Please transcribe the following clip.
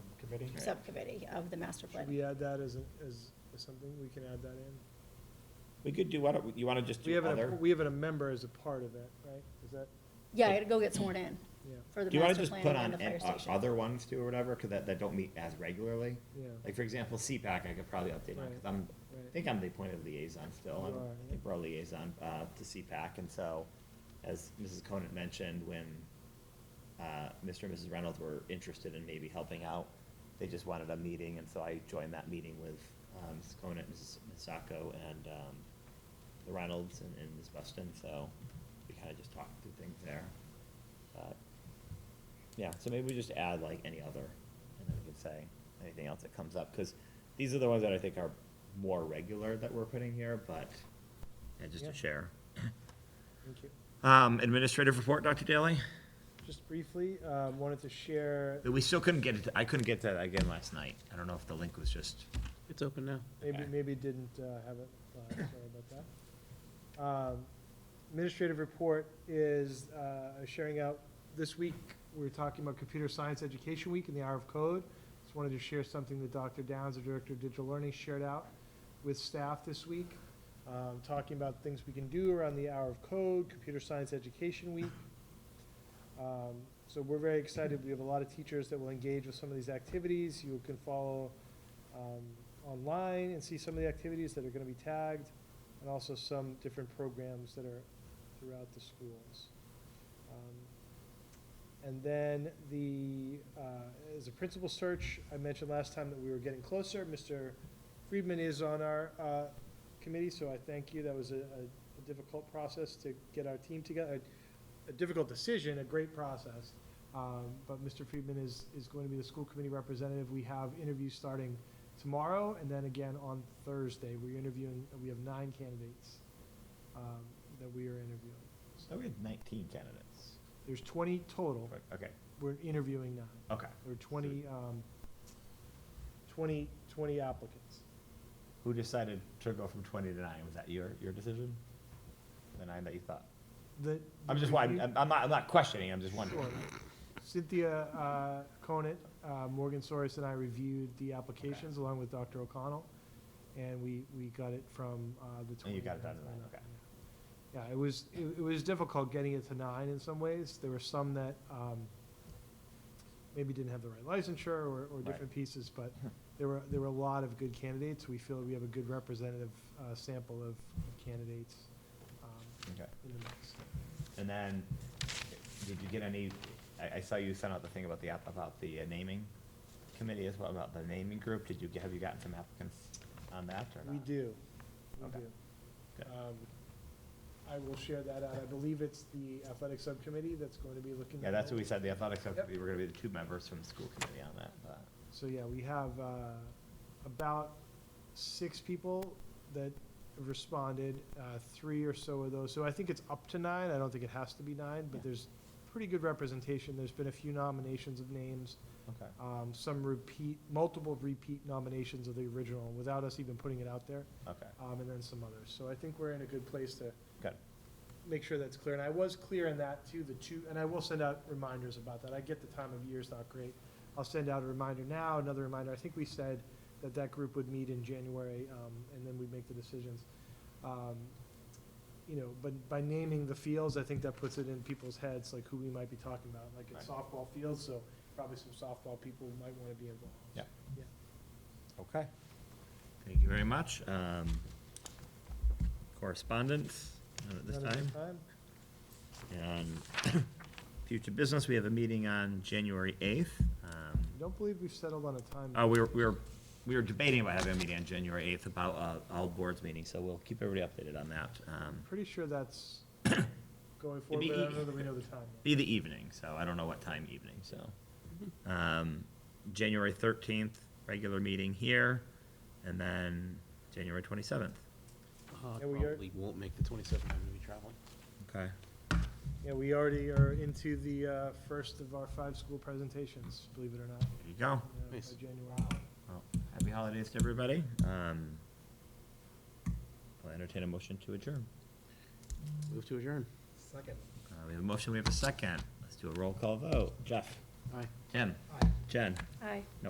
subcommittee? subcommittee of the master Should uh, plan. we add that as, a- as as something, we can add that in? We could do, why don't, you wanna just We do have, a- other? we have a member as a part of it, right? Is that, Yeah, I gotta go get sworn in yeah, for the Do you wanna master just plan put and on, the fire an- on station. other ones too, or whatever, cause that, that don't meet as regularly? yeah, Like, for example, CPAC, I could probably update on, cause Right. I'm, I right. think I'm the appointed liaison still, You I'm- are, I think we're a liaison, uh, to CPAC, and so, as Mrs. Conant mentioned, when, uh, Mr. and Mrs. Reynolds were interested in maybe helping out, they just wanted a meeting, and so I joined that meeting with, um, Mrs. Conant, Mrs. Misako, and, um, the Reynolds and, and Ms. Weston, so we kinda just talked through things there. But, yeah, so maybe we just add like any other, and then we can say anything else that comes up, because these are the ones that I think are more regular that we're putting here, but, yeah, just Yeah. to share. Thank you. Um, administrative report, Dr. Daly? Just briefly, um, wanted to share, We still couldn't get it, I couldn't get that again last night. I don't know if the link was just. It's open now. maybe, Okay. maybe didn't uh, have it, live, sorry about that. Um, Administrative report is uh, sharing out, this week, we were talking about Computer Science Education Week and the Hour of Code. Just wanted to share something that Dr. Downs, the Director of Digital Learning, shared out with staff this week, um, talking about things we can do around the Hour of Code, Computer Science Education Week. Um, So we're very excited. We have a lot of teachers that will engage with some of these activities. You can follow um, online and see some of the activities that are going to be tagged, and also some different programs that are throughout the schools. Um, And then the, uh, as a principal search, I mentioned last time that we were getting closer. Mr. Friedman is on our uh, committee, so I thank you. That was a a- a difficult process to get our team together, a difficult decision, a great process. Um, But Mr. Friedman is, is going to be the school committee representative. We have interviews starting tomorrow and then again on Thursday. We're interviewing, we have nine candidates um, that we are interviewing. So we had nineteen candidates. There's 20 total. Okay, We're interviewing nine. okay. There are 20, um, 20, 20 applicants. Who decided to go from twenty to nine? Was that your, your decision? The nine that you thought? The- I'm just, wondering- I'm, I'm not, I'm not questioning, I'm just wondering. Sure. Cynthia uh, Conant, uh, Morgan Soros, and I reviewed the applications along with Dr. O'Connell, and we, we got it from uh, the 20. And you got it down to nine, okay. Yeah, it was, it it was difficult getting it to nine in some ways. There were some that um, maybe didn't have the right licensure or, or Right. different pieces, but there were, there were a lot of good candidates. We feel we have a good representative uh, sample of of candidates um, Okay. in the mix. And then, did you get any, I, I saw you sent out the thing about the app, about the uh, naming committee as well, about the naming group. Did you, get- have you gotten some applicants on that or not? We do, we Okay. do. Good. Um, I will share that out. I believe it's the athletic subcommittee that's going to be looking. Yeah, that's what we at it. said, the athletics Yep. subcommittee, we're gonna be the two members from the school committee on that, but. So, yeah, we have uh, about six people that responded, uh, three or so of those. So I think it's up to nine. I don't think it has to be nine, Yeah. but there's pretty good representation. There's been a few nominations of names, Okay. um, some repeat, multiple repeat nominations of the original without us even putting it out there, Okay, um, and then some others. So I think we're in a good place to good. make sure that's clear, and I was clear in that too, the two, and I will send out reminders about that, I get the time of year is not great. I'll send out a reminder now, another reminder, I think we said that that group would meet in January, um, and then we'd make the decisions. Um, You know, but by naming the fields, I think that puts it in people's heads, like who we might be talking about, like it's softball fields, so probably some softball people might wanna be involved. Yeah. Yeah. Okay. Thank you very much. Um, correspondence, none at this Another time. And future business, we have a meeting on January eighth. Um, I don't believe we've settled on a time. Uh, we were, we were, we were debating about having a meeting on January eighth about, uh, all boards meeting, so we'll keep everybody updated on that. Um, Pretty sure that's going It'd forward, be but I don't ea- know that we know the time. yet. be the evening, so I don't know what time evening, so. Um, January thirteenth, regular meeting here, and then January twenty-seventh. Uh, Yeah, we are- Probably won't make the 27th, I'm going to be traveling. Okay. Yeah, we already are into the uh, first of our five school presentations, believe it or not, There you go. you know, by Nice. January. Well, happy holidays to everybody. Um, I'll entertain a motion to adjourn. Move to adjourn. Second. Uh, we have a motion, we have a second. Let's do a roll call vote. Jeff? Aye. Tim? Aye. Jen? Aye.